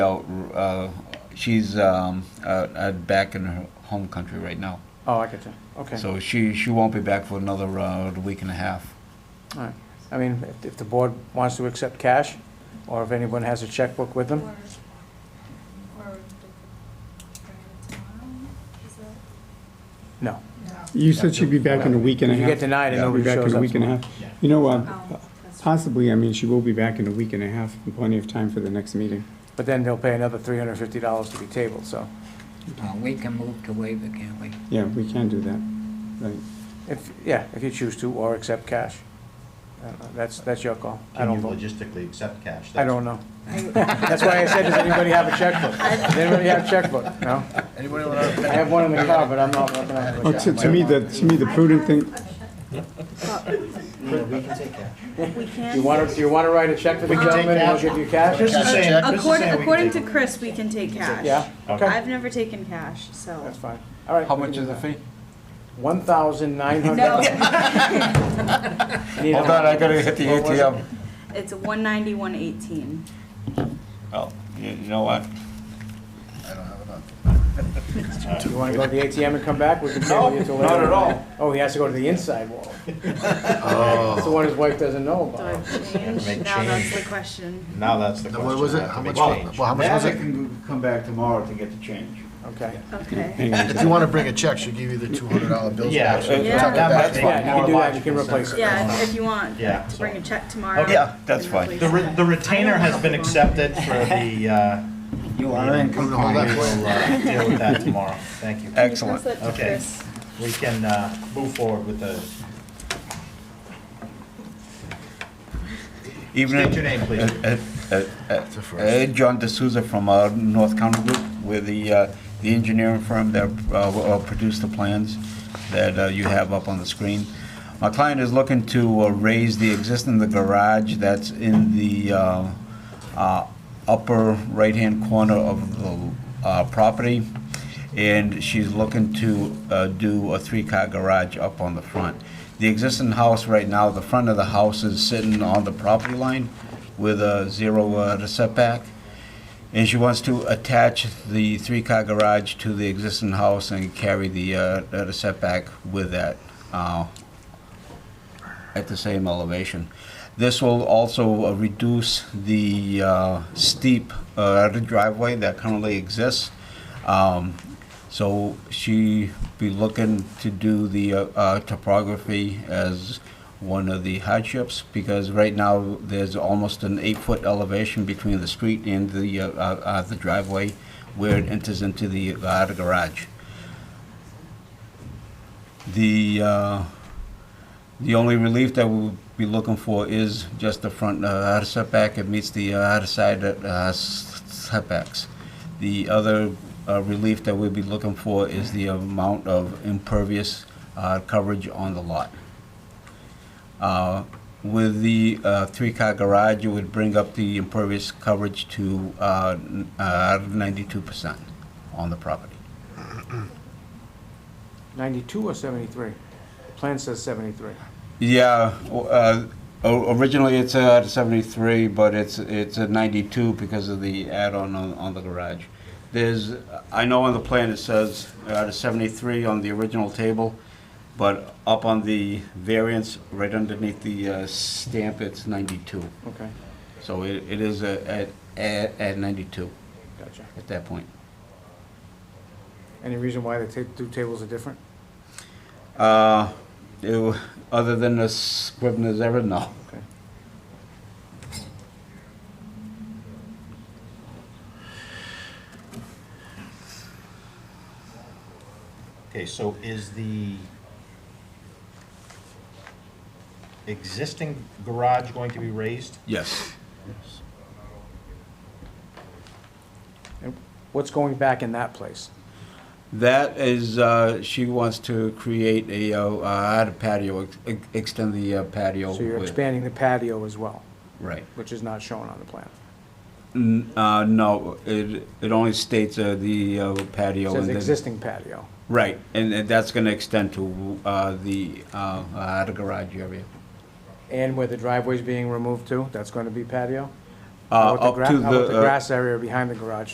know, uh, she's um, uh, uh, back in her home country right now. Oh, I get you. Okay. So she, she won't be back for another uh, week and a half. All right. I mean, if- if the board wants to accept cash, or if anyone has a checkbook with them, Or- or the- tomorrow, is that? no. You said she'd be back in a week and a If you half. get denied and She'll be nobody back shows in a up. week and a half. You know, Oh, uh, possibly, I mean, she will be back in a week and a half, plenty of time for the next meeting. But then they'll pay another three hundred and fifty dollars to be tabled, so. Well, we can move to waive it, can't we? Yeah, we can do that, right. If, yeah, if you choose to, or accept cash. Uh, That's, that's your call. I Can don't you vote. logistically accept cash? I don't know. That's why I said, does anybody have a checkbook? Does anybody have a checkbook? No? Anybody I have one in the car, but I'm not looking at it. Well, Oh, to, to me, the, to me, the prudent thing, No, We can take cash. We You can, want to, you want to write a check for the We can take gentleman and cash. he'll give you cash? Just saying, just saying we according, can according to take- Chris, we can take cash. Yeah? Okay, I've never taken cash, so. that's fine. All right. How much is the fee? One thousand nine hundred. No, Hold on, I gotta hit the What was it? ATM. it's one ninety, one eighteen. Oh, you you know what? You want to go to the ATM and come back? We can table you till later. not at all. Oh, he has to go to the inside wall. Oh. That's the one his wife doesn't know Do I about. change? make Now that's change. the question. Now that's the Now, question. what was we it? have to How make much, change. well, how much was Now they it? can come back tomorrow to get the change. Okay. Okay. hang on, If you want to bring a check, she'll give you the $200 bills Yeah, back. that- Tuck it Yeah. that back. might make Yeah, Uh, you can do more that. You logical can replace sense. it. Yeah, if- if you want, Yeah, to bring a check tomorrow. Okay. Yeah, that's and fine. replace The re- it. the retainer has been accepted for the, uh, You I didn't come to hold that for we'll you. uh, deal with that tomorrow. Thank you. Can you Excellent. pass that to Okay. Chris? We can uh, move forward with the, state your Even, name, please. uh, uh, uh, uh, John D'Souza from uh, North County Group, we're the, uh, the engineering firm that uh, will- will produce the plans that uh, you have up on the screen. My client is looking to uh, raise the existing, the garage that's in the uh, uh, upper right-hand corner of the uh, property, and she's looking to uh, do a three-car garage up on the front. The existing house right now, the front of the house is sitting on the property line with a zero uh, setback. And she wants to attach the three-car garage to the existing house and carry the, uh, the setback with that, uh, at the same elevation. This will also uh, reduce the, uh, steep, uh, driveway that currently exists. Um, so she be looking to do the, uh, uh, topography as one of the hardships, because right now, there's almost an eight-foot elevation between the street and the, uh, uh, uh, the driveway where it enters into the, uh, the garage. The, uh, the only relief that we'll be looking for is just the front uh, setback, it meets the uh, side uh, s- setbacks. The other uh, relief that we'll be looking for is the amount of impervious uh, coverage on the lot. Uh, With the uh, three-car garage, it would bring up the impervious coverage to uh, n- uh, 92% on the property. Ninety-two or seventy-three? Plan says seventy-three. Yeah, o- uh, o- originally it's at 73, but it's, it's at 92 because of the add-on on, on the garage. There's, I know on the plan it says at 73 on the original table, but up on the variance, right underneath the uh, stamp, it's 92. Okay, So it, it is a- at, at, at 92 gotcha. at that point. Any reason why the ta- two tables are different? Uh, it- Other than the Scrivener's error, no. Okay. Okay, so is the existing garage going to be raised? Yes. And What's going back in that place? That is, uh, she wants to create a, uh, uh, a patio, ex- extend the uh, patio. So you're with- expanding the patio as well, Right. which is not shown on the plan. N- uh, no, it, it only states, uh, the uh, patio. It says and then- existing patio. Right, and, and that's gonna extend to, uh, the, uh, uh, the garage area. And where the driveway's being removed to, that's going to be patio? Uh, With the up gra- to uh, how about the, the uh, grass area behind the garage.